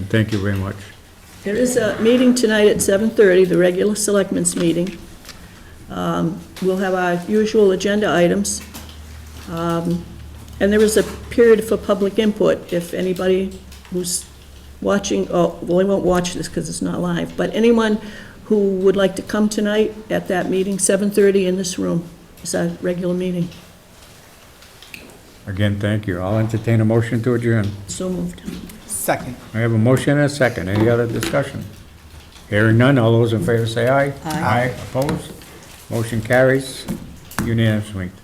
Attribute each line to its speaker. Speaker 1: Thank you very much.
Speaker 2: There is a meeting tonight at 7:30, the regular selectmen's meeting. Um, We'll have our usual agenda items. Um, And there is a period for public input. If anybody who's watching, oh, well, they won't watch this because it's not live, but anyone who would like to come tonight at that meeting, 7:30 in this room, it's our regular meeting.
Speaker 1: Again, thank you. I'll entertain a motion to adjourn.
Speaker 2: So moved.
Speaker 3: Second.
Speaker 1: I have a motion and a second. Any other discussion? Hearing none, all those in favor say aye. Aye. Opposed? Motion carries unanimously.